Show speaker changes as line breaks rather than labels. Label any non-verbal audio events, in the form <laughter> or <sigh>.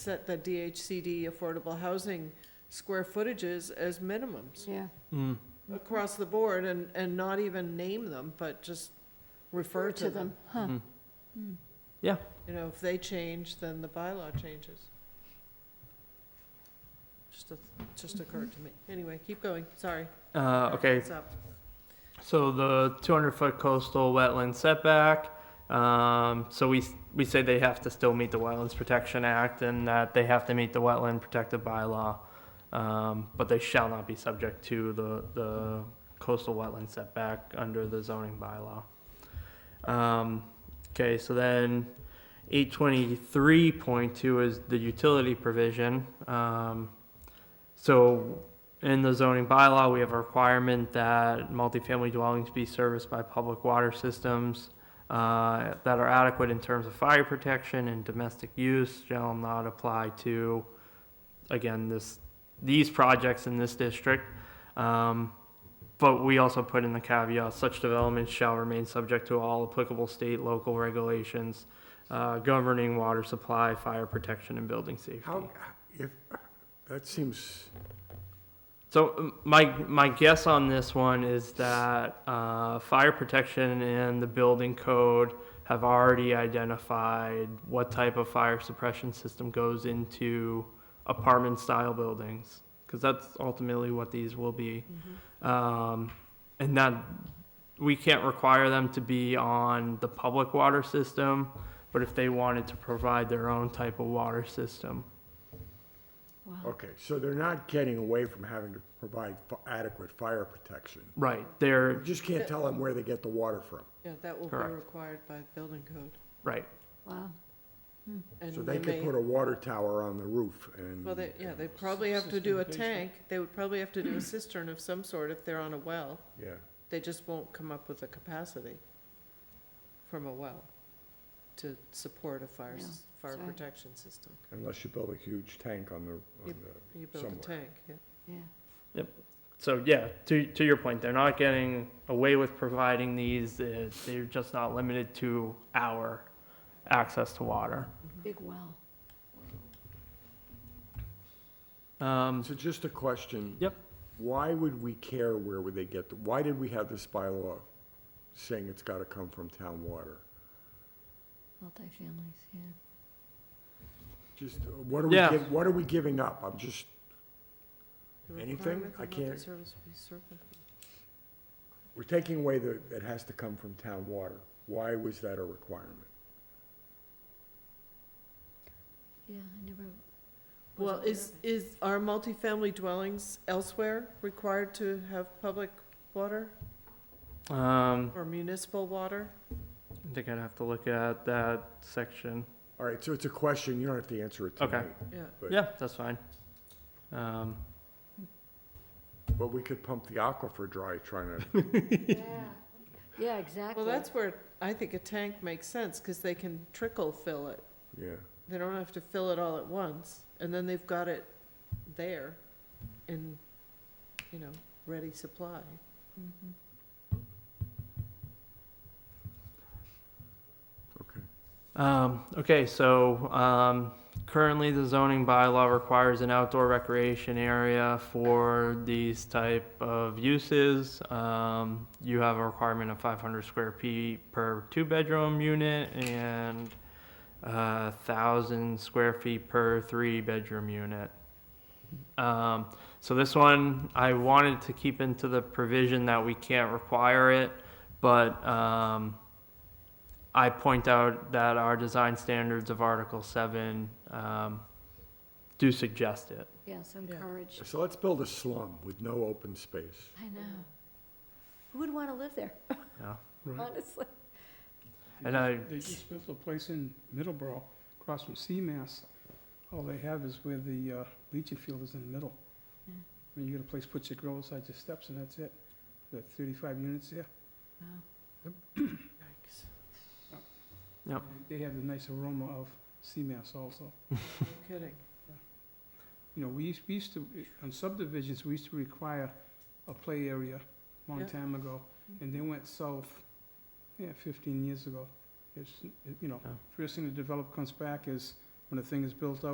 set the DHCD affordable housing square footages as minimums
Yeah,
Mm.
across the board and, and not even name them, but just refer to them.
huh?
Mm.
Mm.
You know, if they change, then the bylaw changes. Just, a- just occurred to me. Anyway, keep going, sorry.
Uh, okay,
It's up.
so the 200 foot coastal wetland setback. Um, so we s- we say they have to still meet the Wetlands Protection Act and that they have to meet the wetland protective bylaw, um, but they shall not be subject to the the coastal wetland setback under the zoning bylaw. Um, okay, so then 823.2 is the utility provision. Um, so in the zoning bylaw, we have a requirement that multifamily dwellings be serviced by public water systems uh, that are adequate in terms of fire protection and domestic use shall not apply to, again, this, these projects in this district. Um, But we also put in the caveat, such developments shall remain subject to all applicable state, local regulations uh, governing water supply, fire protection, and building safety.
How, if, that seems,
So um, my my guess on this one is that uh, fire protection and the building code have already identified what type of fire suppression system goes into apartment style buildings because that's ultimately what these will be, um, and that we can't require them to be on the public water system, but if they wanted to provide their own type of water system,
Wow.
okay, so they're not getting away from having to provide fi- adequate fire protection.
right? They're
You just can't tell them where they get the water from.
Yeah, that will be
Correct.
required by the building code.
right.
Mm-hmm.
Wow.
And
So they
may-
could put a water tower on the roof and.
Well, they, yeah, they probably have to do a tank, they would probably have to do a cistern of some sort if they're on a well.
Yeah.
They just won't come up with a capacity from a well to support a fire,
Yeah,
s- fire
sorry.
protection system.
Unless you build a huge tank on the, on
Yep.
the,
You build a
Somewhere.
tank, yeah.
Yeah.
Mm-hmm.
So yeah, to to your point, they're not getting away with providing these. uh, They're just not limited to our access to water.
Big well.
Um,
so just a question.
Yep.
Why would we care where would they get, the? why did we have this bylaw saying it's gotta come from town water?
Multi-families, yeah.
Just, uh, what are we,
Yeah.
giv- what are we giving up? I'm just,
The
Anything?
requirement
I
that
can't-
multi-service be served-
we're taking away the, it has to come from town water. Why was that a requirement?
Yeah, I never. was
Well,
aware
is,
of it.
is, are multifamily dwellings elsewhere required to have public water
um,
or municipal water?
I think I'd have to look at that section.
All right, so it's a question, you don't have to answer it
Okay.
tonight.
Yeah.
But-
Yeah, that's fine. Um,
But we could pump the aquifer dry trying to, <laughs>
Yeah. Yeah, exactly.
Well, that's where I think a tank makes sense, cause they can trickle fill it.
yeah.
They don't have to fill it all at once, and then they've got it there in, you know, ready supply.
Mhm.
Um, okay, so, um, currently the zoning bylaw requires an outdoor recreation area for these type of uses. Um, you have a requirement of five hundred square feet per two-bedroom unit and, uh, thousand square feet per three-bedroom unit. Um, so this one, I wanted to keep into the provision that we can't require it, but, um, I point out that our design standards of Article Seven um, do suggest it.
Yeah, so
Yeah.
encouraged.
So let's build a slum with no open space.
I know. Who would want to live there,
Yeah.
honestly?
And I,
They just built a place in Middleborough, across from Seamass. All they have is where the uh, leaching field is in the middle.
Yeah.
I mean, you got a place, put your grill inside your steps, and that's it. There are thirty-five units there.
Wow.
Yikes.
They have the nice aroma of Seamass also.
No kidding.
You know, we used, we used to, on subdivisions, we used to require a play area a long
Yeah.
time ago, and
Mm-hmm.
they went south, yeah, fifteen years ago. It's, you know,
Yeah.
first thing the developer comes back is, when the thing is built out.